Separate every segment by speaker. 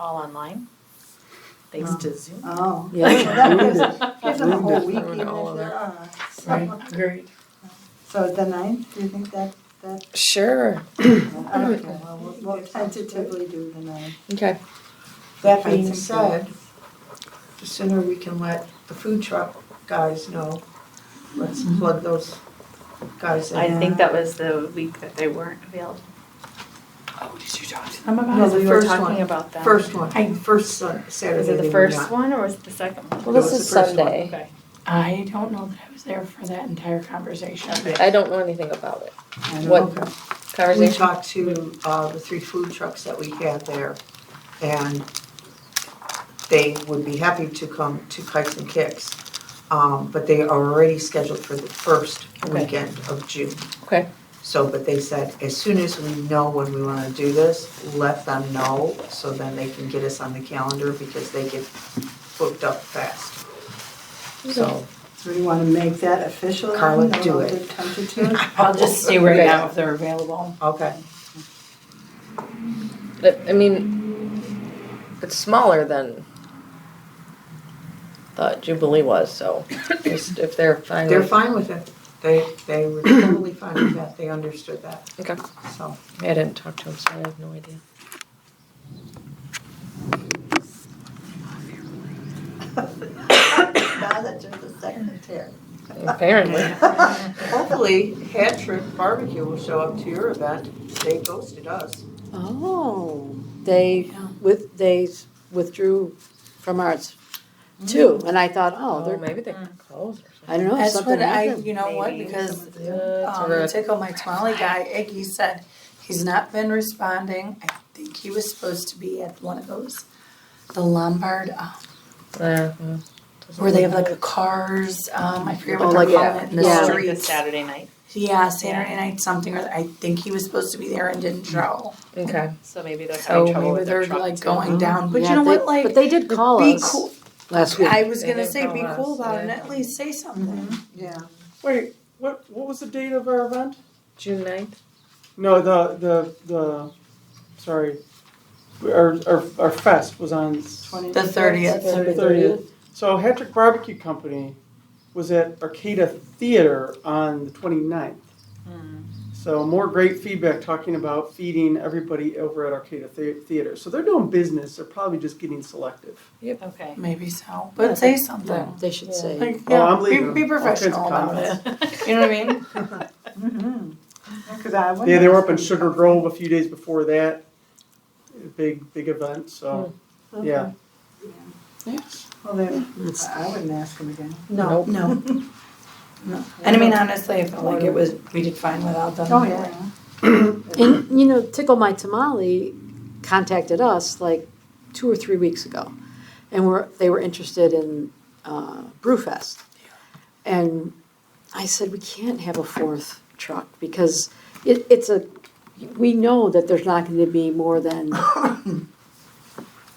Speaker 1: all online, thanks to Zoom.
Speaker 2: Oh.
Speaker 3: Yeah.
Speaker 2: That gives- Gives them a whole week
Speaker 4: Ruined
Speaker 2: even
Speaker 4: all
Speaker 2: if
Speaker 4: of
Speaker 2: there are.
Speaker 4: Right, great.
Speaker 2: So the ninth, do you think that, that, uh,
Speaker 3: Sure.
Speaker 2: okay, well, we'll- we'll tentatively do the ninth.
Speaker 3: Okay.
Speaker 5: That
Speaker 2: Find
Speaker 5: being
Speaker 2: some time.
Speaker 5: said, the sooner we can let the food truck guys know, let's
Speaker 2: Mm-hmm.
Speaker 5: plug those guys in.
Speaker 1: I think that was the week that they weren't available.
Speaker 4: Oh, did you talk to
Speaker 1: I'm
Speaker 5: No,
Speaker 1: about,
Speaker 5: the
Speaker 1: we were
Speaker 5: first
Speaker 1: talking
Speaker 5: one.
Speaker 1: about that.
Speaker 5: First one, first Sun-
Speaker 1: Was
Speaker 5: Saturday
Speaker 1: it
Speaker 5: they
Speaker 1: the
Speaker 5: were
Speaker 1: first
Speaker 5: not.
Speaker 1: one or was it the second one?
Speaker 3: Well, this
Speaker 5: That was
Speaker 3: is
Speaker 5: the first one.
Speaker 3: Sunday.
Speaker 1: Okay.
Speaker 4: I don't know that I was there for that entire conversation.
Speaker 5: Okay.
Speaker 3: I don't know anything about it.
Speaker 2: I don't
Speaker 3: What
Speaker 2: know.
Speaker 5: We
Speaker 3: Conversation.
Speaker 5: talked to uh, the three food trucks that we had there, and they would be happy to come to Kikes and Kicks, um, but they are already scheduled for the first
Speaker 3: Okay.
Speaker 5: weekend of June.
Speaker 3: Okay.
Speaker 5: So, but they said, as soon as we know when we wanna do this, let them know, so then they can get us on the calendar, because they get booked up fast. So,
Speaker 2: Do we want to make that official?
Speaker 5: Carla,
Speaker 2: then,
Speaker 5: do
Speaker 2: or
Speaker 5: it.
Speaker 2: the Tentative?
Speaker 4: I'll just see right now if they're available.
Speaker 5: okay,
Speaker 3: But, I mean, it's smaller than thought Jubilee was. So just if they're fine.
Speaker 5: they're
Speaker 3: with-
Speaker 5: fine with it, they, they were totally fine with that, they understood that,
Speaker 3: Okay.
Speaker 5: so.
Speaker 3: I didn't talk to him, so I have no idea.
Speaker 2: Now that you're the secretary.
Speaker 3: Apparently.
Speaker 5: Hopefully, Hat Trick Barbecue will show up to your event. They ghosted us.
Speaker 6: Oh, they with, they withdrew from ours too, and I thought, oh,
Speaker 3: Oh,
Speaker 6: they're,
Speaker 3: maybe they got closed or
Speaker 6: I don't know,
Speaker 7: That's
Speaker 6: something
Speaker 7: what I,
Speaker 6: happened.
Speaker 7: you know what,
Speaker 1: Maybe
Speaker 7: because
Speaker 1: something
Speaker 7: the
Speaker 3: Sure.
Speaker 7: um, Tickle My Tamale guy, Iggy said, he's not been responding. I think he was supposed to be at one of those, the Lombard, um,
Speaker 3: something. Yeah, yeah.
Speaker 7: where they have like the cars, um, I forget
Speaker 6: Oh,
Speaker 7: what they're
Speaker 6: like,
Speaker 7: calling it, in the
Speaker 6: yeah.
Speaker 1: Like the
Speaker 7: streets.
Speaker 1: Saturday night,
Speaker 7: Yeah, Saturday night something, or I think he was supposed to be there and didn't show.
Speaker 3: Okay.
Speaker 1: so maybe they're
Speaker 3: So
Speaker 1: having trouble
Speaker 7: Maybe
Speaker 1: with their
Speaker 7: they're
Speaker 1: truck.
Speaker 7: like
Speaker 1: too.
Speaker 7: going down, but you
Speaker 6: Mm-hmm. Yeah,
Speaker 7: know
Speaker 6: they-
Speaker 7: what, like,
Speaker 6: But they did call
Speaker 7: be
Speaker 6: us
Speaker 7: cool.
Speaker 6: last week.
Speaker 7: I was
Speaker 3: They
Speaker 7: gonna
Speaker 3: did
Speaker 7: say, be
Speaker 3: call
Speaker 7: cool
Speaker 3: us,
Speaker 7: about it and
Speaker 3: yeah.
Speaker 7: at least say something.
Speaker 2: Yeah.
Speaker 8: Wait, what, what was the date of our event?
Speaker 3: June 9th?
Speaker 8: No, the, the, the, sorry, our, our, our fest was on.
Speaker 7: The thirtieth,
Speaker 6: September
Speaker 8: 30th. So Hattrick Barbecue Company was at Arcata Theater on the 29th. So more great feedback talking about feeding everybody over at Arcata Thea- Theater. So they're doing business, they're probably just getting selective.
Speaker 1: Okay.
Speaker 7: maybe so, but say something.
Speaker 6: Yeah, They should say.
Speaker 7: Like,
Speaker 8: Oh,
Speaker 7: yeah,
Speaker 8: I'm
Speaker 7: be,
Speaker 8: leaving.
Speaker 7: be
Speaker 8: All kinds of
Speaker 7: professional about
Speaker 8: comments.
Speaker 7: it. You know what I mean? Mm-hmm.
Speaker 2: Mhm. Yeah, 'cause I wondered
Speaker 8: Yeah, they were up in
Speaker 2: if-
Speaker 8: Sugar Grove a few days before that. Big, big event, so, yeah.
Speaker 2: Well, then, I I wouldn't ask them again.
Speaker 5: No.
Speaker 7: No. No. And I mean, honestly, I felt like it was, we did fine without them.
Speaker 2: Oh, yeah.
Speaker 6: And, you know, Tickle My Tamale contacted us like two or three weeks ago. And were, they were interested in uh, Brewfest. And I said, we can't have a fourth truck because it, it's a, we know that there's not going to be more than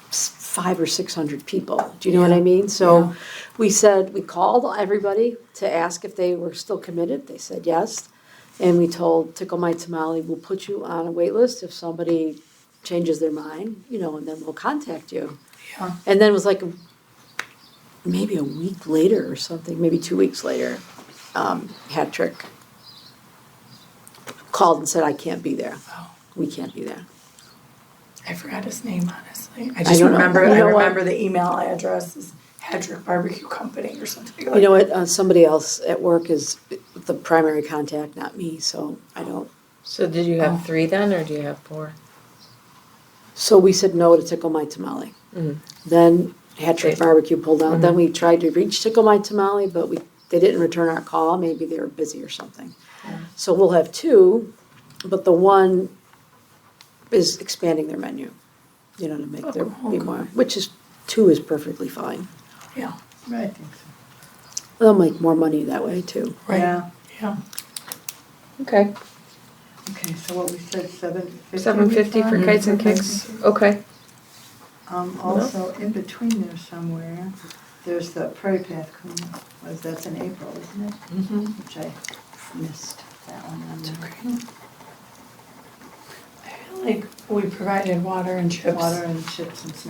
Speaker 6: s- five or 600 people. Do you know what I mean? So we said, we called everybody to ask if they were still committed. They said yes. And we told Tickle My Tamale, we'll put you on a wait list if somebody changes their mind, you know, and then we'll contact you.
Speaker 7: Yeah.
Speaker 6: And then it was like maybe a week later or something, maybe two weeks later, um, Hattrick called and said, I can't be there.
Speaker 7: Oh.
Speaker 6: We can't be there.
Speaker 7: I forgot his name, honestly. I just
Speaker 6: don't know.
Speaker 7: remember,
Speaker 6: You
Speaker 7: I
Speaker 6: know what?
Speaker 7: remember the email address is Hedrick Barbecue Company or something
Speaker 6: You
Speaker 7: like.
Speaker 6: know what? Uh, somebody else at work is the primary contact, not me, so I don't.
Speaker 3: So did you have three then, or do you have four?
Speaker 6: So we said no to Tickle My Tamale.
Speaker 3: Mhm.
Speaker 6: Then Hattrick
Speaker 3: Great.
Speaker 6: Barbecue pulled out. Then we tried to reach Tickle My Tamale, but we they didn't return our call. Maybe they were busy or something. So we'll have two, but the one is expanding their menu. You know to make there be more, which is two is perfectly fine.
Speaker 7: Yeah.
Speaker 2: Right.
Speaker 6: They'll make more money that way too.
Speaker 7: Right.
Speaker 2: Yeah,
Speaker 3: Okay.
Speaker 2: okay, so what we said, seven fifty?
Speaker 3: Seven fifty for kites and kicks, okay.
Speaker 2: Um, also, in between there somewhere, there's the Prairie Path Cleanup, was, that's in April, isn't it? Mm-hmm. Which I missed that one. on
Speaker 7: It's
Speaker 2: there.
Speaker 7: okay. I feel like we provided water and chips.
Speaker 2: Water and chips and snacks.